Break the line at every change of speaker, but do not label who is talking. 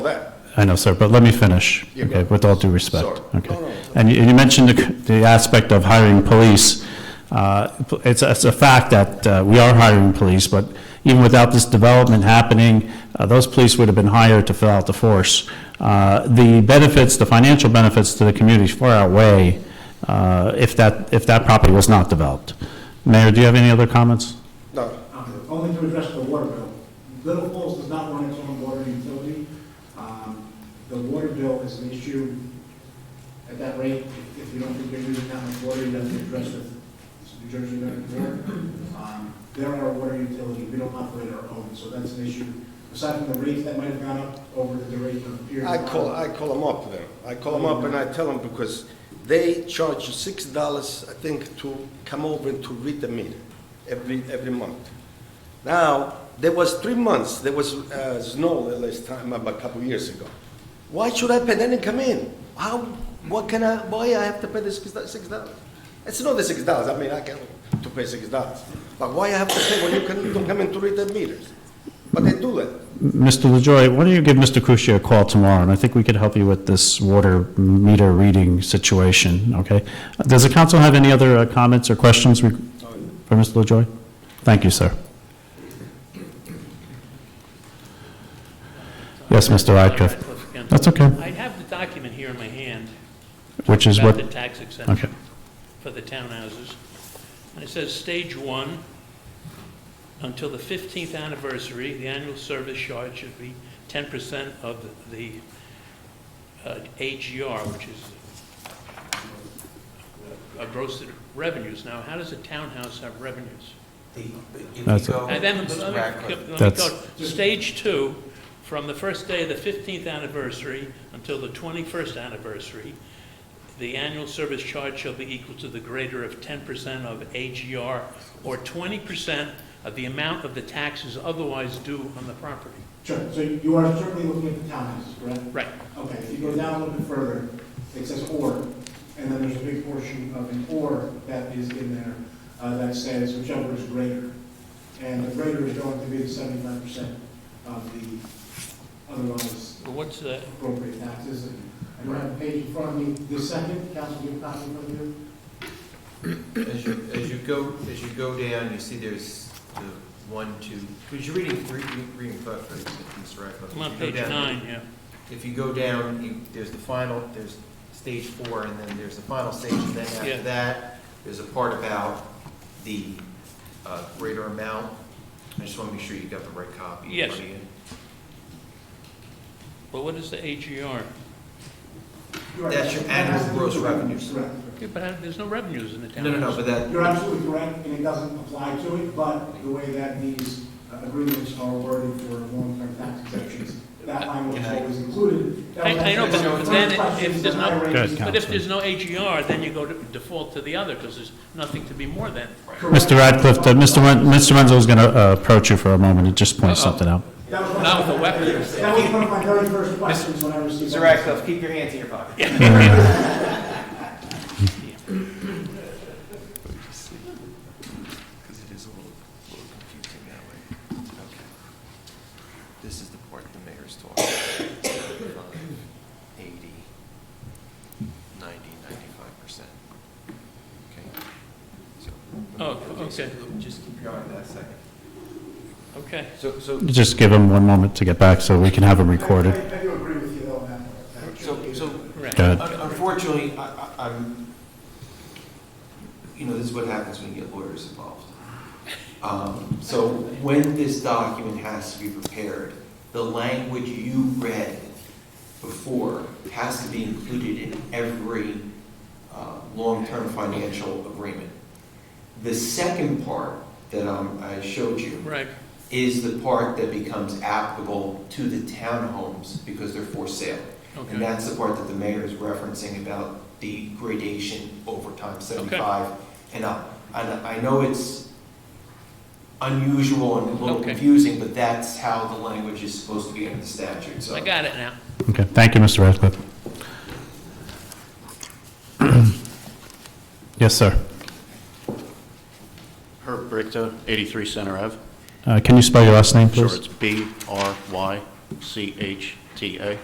that.
I know, sir, but let me finish, okay, with all due respect.
Sorry.
Okay. And you and you mentioned the c- the aspect of hiring police. Uh, It's it's a fact that uh, we are hiring police, but even without this development happening, uh, those police would have been hired to fill out the force. Uh, The benefits, the financial benefits to the community far outweigh uh, if that, if that property was not developed. Mayor, do you have any other comments?
No,
Uh, Only to address the water bill. Little Falls does not run its own water utility. Um, The water bill is an issue at that rate. If you don't think you're using that much water, you have to address it. It's New Jersey Revenue Um They're our water utility, we don't operate our own, so that's an issue. Aside from the rates that might have gone up over the duration of the period.
I
of
call,
time.
I call them up then. I call them up and I tell them because they charge you six dollars, I think, to come over and to read the meter every, every month. Now, there was three months, there was uh, snow the last time, about a couple years ago. Why should I pay? They didn't come in. How, what can I, why I have to pay this six dollars? It's not the six dollars, I mean, I can, to pay six dollars. But why I have to pay when you can, don't come in to read the meters? But they do that.
Mr. LaJoy, why don't you give Mr. Kushya a call tomorrow, and I think we could help you with this water meter reading situation, okay? Does the council have any other uh, comments or questions reg- for Mr. LaJoy? Thank you, sir. Yes, Mr. Radcliffe,
Radcliffe again.
That's okay.
I have the document here in my hand.
which is
About
what,
the tax
okay,
exemption for the townhouses. And it says, stage one, until the 15th anniversary, the annual service charge should be 10% of the uh, AGR, which is uh, gross revenues. Now, how does a townhouse have revenues?
The- If you
That's-
go,
And then, let me-
Mr.
let me
Radcliffe,
go,
That's-
stage two, from the first day of the 15th anniversary until the 21st anniversary, the annual service charge shall be equal to the greater of 10% of AGR or 20% of the amount of the taxes otherwise due on the property.
Sure, so you are certainly looking at the townhouses, correct?
Right.
Okay, if you go down a little bit further, it says or, and then there's a big portion of an or that is in there uh, that says whichever is greater. And the greater is going to be the seventy-five percent of the otherwise
But what's the,
appropriate taxes. And I don't have a page in front of me this second, council, do you have a copy in front of you?
as you, as you go, as you go down, you see there's the one, two, because you're reading, reading, reading Cliff, right, Mr. Radcliffe.
I'm on
If you
page
go down-
nine, yeah.
If you go down, you, there's the final, there's stage four, and then there's the final stage, and then
Yeah.
after that, there's a part about the, uh, greater amount. I just want to make sure you got the right copy. in
Yes.
front of you.
But what is the E AGR?
You're right.
That's your
That has
annual gross
to be correct.
revenues.
Correct.
Yeah, but I- there's no revenues in the
No, no, no,
townhouse.
but that,
You're absolutely correct, and it doesn't apply to it, but the way that these uh, agreements are worded for long-term tax exemptions, that language is always included. That was
I- I know,
actually
but
one of the
then
first questions
if there's
that I
no-
raised.
Good.
But if there's no AGR, then you go to default to the other, because there's nothing to be more than.
Correct.
Mr. Radcliffe, uh, Mr. Ren- Mr. Renzo is going to approach you for a moment and just point
Uh-oh.
something out.
That was one of
Not
my-
with a weapon.
That was one of my very first questions when I received.
Mr.
that.
Radcliffe, keep your hands in your pocket.
Because it is a little, little confusing that way. Okay. This is the part the mayor's talking about. 80, 90, 95%. Okay? So-
Oh, okay.
Just keep your eye on that a second.
Okay.
So, so,
Just give him one moment to get back so we can have him
I
recorded.
I do agree with you though, on that.
so, so
Right.
Go ahead.
Un- Unfortunately, I, I- I'm, you know, this is what happens when you get lawyers involved. Um, So when this document has to be prepared, the language you read before has to be included in every uh, long-term financial agreement. The second part that um, I showed you
Right,
is the part that becomes applicable to the townhomes because they're for sale.
okay.
And that's the part that the mayor is referencing about the gradation over time, 75 and up. And I know it's unusual and a little
Okay.
confusing, but that's how the language is supposed to be in the statute, so.
I got it now.
Okay, thank you, Mr. Radcliffe. Yes, sir.
Herb Brichta, 83 Center Ave.
Uh, Can you spell your last name,
Sure,
please?
it's B-R-Y-C-H-T-A. TA.